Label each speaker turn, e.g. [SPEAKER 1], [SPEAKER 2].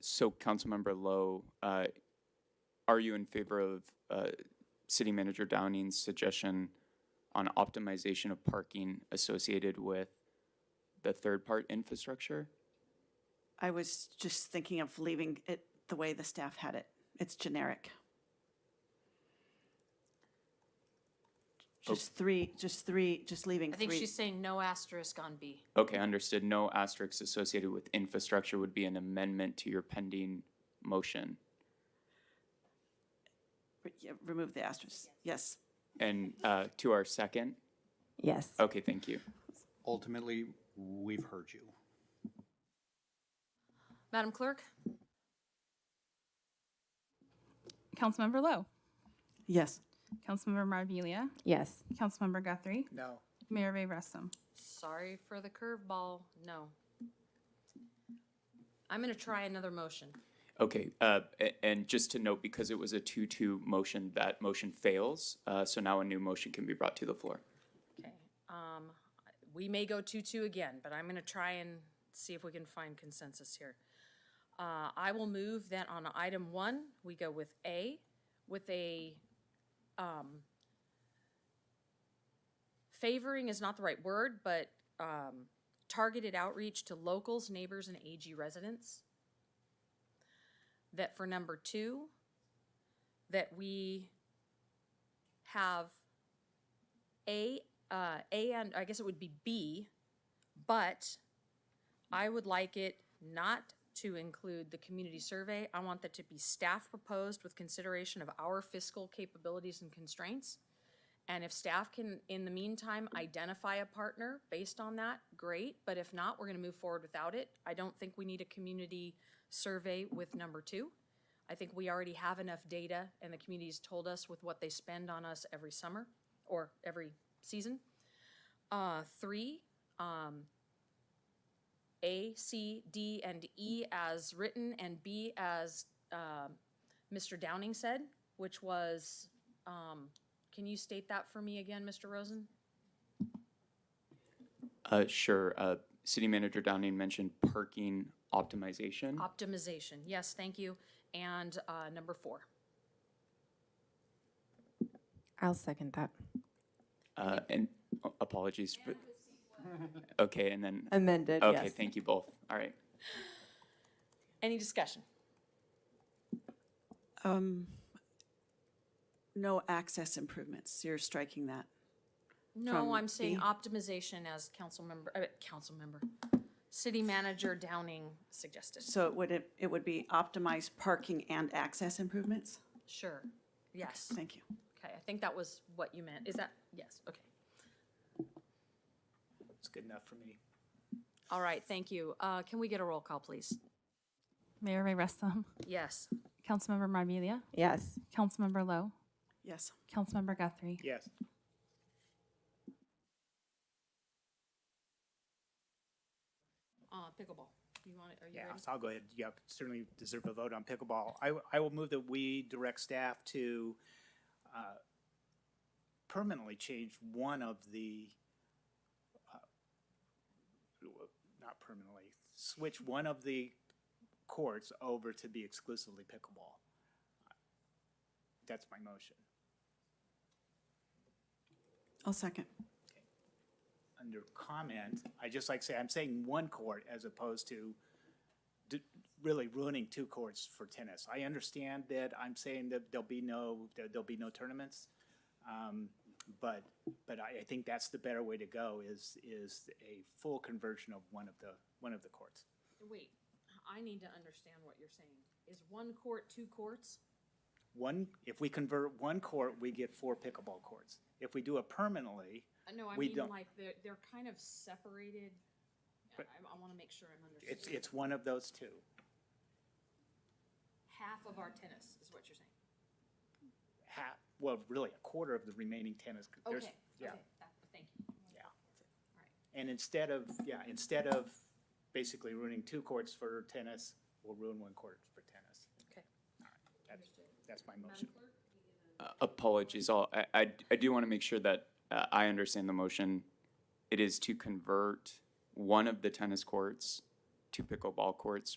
[SPEAKER 1] So Councilmember Lowe, uh, are you in favor of uh, City Manager Downing's suggestion on optimization of parking associated with the third part infrastructure?
[SPEAKER 2] I was just thinking of leaving it the way the staff had it. It's generic. Just three, just three, just leaving
[SPEAKER 3] I think
[SPEAKER 2] three.
[SPEAKER 3] she's saying no asterisk on B.
[SPEAKER 1] Okay, understood. No asterisks associated with infrastructure would be an amendment to your pending motion.
[SPEAKER 2] Re- yeah, Remove the asterisk. Yes.
[SPEAKER 1] And uh, to our second?
[SPEAKER 4] Yes.
[SPEAKER 1] Okay, thank you.
[SPEAKER 5] Ultimately, we've heard you.
[SPEAKER 3] Madam Clerk?
[SPEAKER 6] Councilmember Lowe,
[SPEAKER 2] Yes.
[SPEAKER 6] Councilmember Marvelia,
[SPEAKER 4] Yes.
[SPEAKER 6] Councilmember Guthrie,
[SPEAKER 5] No.
[SPEAKER 6] Mayor Ray Russom.
[SPEAKER 3] Sorry for the curveball, no. I'm gonna try another motion.
[SPEAKER 1] Okay, uh, a- and just to note, because it was a two-two motion, that motion fails. Uh, so now a new motion can be brought to the floor.
[SPEAKER 3] Okay, um, we may go two-two again, but I'm gonna try and see if we can find consensus here. Uh, I will move that on item one, we go with A, with a, um, favoring is not the right word, but, um, targeted outreach to locals, neighbors, and AG residents. That for number two, that we have a, uh, A and, I guess it would be B, but I would like it not to include the community survey. I want that to be staff proposed with consideration of our fiscal capabilities and constraints. And if staff can, in the meantime, identify a partner based on that, great, but if not, we're gonna move forward without it. I don't think we need a community survey with number two. I think we already have enough data, and the community's told us with what they spend on us every summer or every season. Uh, three, um, A, C, D, and E as written, and B as, um, Mr. Downing said, which was, um, can you state that for me again, Mr. Rosen?
[SPEAKER 1] Uh, sure. Uh, City Manager Downing mentioned parking optimization.
[SPEAKER 3] Optimization, yes, thank you. And, uh, number four.
[SPEAKER 4] I'll second that.
[SPEAKER 1] Uh, and uh, apologies. for- okay, and then
[SPEAKER 4] Amended,
[SPEAKER 1] okay, thank you both. All right.
[SPEAKER 3] Any discussion?
[SPEAKER 2] Um, no access improvements. You're striking that. From
[SPEAKER 3] No, I'm saying
[SPEAKER 2] B?
[SPEAKER 3] optimization as council member, uh, council member, city manager Downing suggested.
[SPEAKER 2] So it would, it it would be optimized parking and access improvements?
[SPEAKER 3] Sure, yes.
[SPEAKER 2] Thank you.
[SPEAKER 3] Okay, I think that was what you meant. Is that, yes, okay.
[SPEAKER 5] It's good enough for me.
[SPEAKER 3] All right, thank you. Uh, Can we get a roll call, please?
[SPEAKER 6] Mayor Ray Russom,
[SPEAKER 3] Yes.
[SPEAKER 6] Councilmember Marvelia,
[SPEAKER 4] Yes.
[SPEAKER 6] Councilmember Lowe,
[SPEAKER 2] Yes.
[SPEAKER 6] Councilmember Guthrie,
[SPEAKER 5] Yes.
[SPEAKER 3] Uh, Pickleball, you want it, are you
[SPEAKER 7] Yeah,
[SPEAKER 3] ready?
[SPEAKER 7] so I'll go ahead. You certainly deserve a vote on pickleball. I, w- I will move that we direct staff to uh, permanently change one of the, uh, not permanently, switch one of the courts over to be exclusively pickleball. That's my motion,
[SPEAKER 2] I'll second.
[SPEAKER 7] under comment, I just like say, I'm saying one court as opposed to d- really ruining two courts for tennis. I understand that I'm saying that there'll be no, there- there'll be no tournaments. Um, but, but I, I think that's the better way to go is, is a full conversion of one of the, one of the courts.
[SPEAKER 3] Wait, I need to understand what you're saying. Is one court two courts?
[SPEAKER 7] One, if we convert one court, we get four pickleball courts. If we do it permanently,
[SPEAKER 3] Uh, No, I
[SPEAKER 7] We
[SPEAKER 3] mean
[SPEAKER 7] don't.
[SPEAKER 3] like they're, they're kind of separated. I, I want to make sure I'm
[SPEAKER 7] it's,
[SPEAKER 3] understanding.
[SPEAKER 7] it's one of those two.
[SPEAKER 3] Half of our tennis is what you're saying.
[SPEAKER 7] Half, well, really a quarter of the remaining tennis. there's-
[SPEAKER 3] Okay,
[SPEAKER 7] Yeah.
[SPEAKER 3] okay, that, thank you.
[SPEAKER 7] Yeah.
[SPEAKER 3] All right.
[SPEAKER 7] And instead of, yeah, instead of basically ruining two courts for tennis, we'll ruin one court for tennis.
[SPEAKER 3] Okay.
[SPEAKER 7] That's, that's my motion.
[SPEAKER 1] Uh, apologies. All I, I I do want to make sure that uh, I understand the motion. It is to convert one of the tennis courts to pickleball courts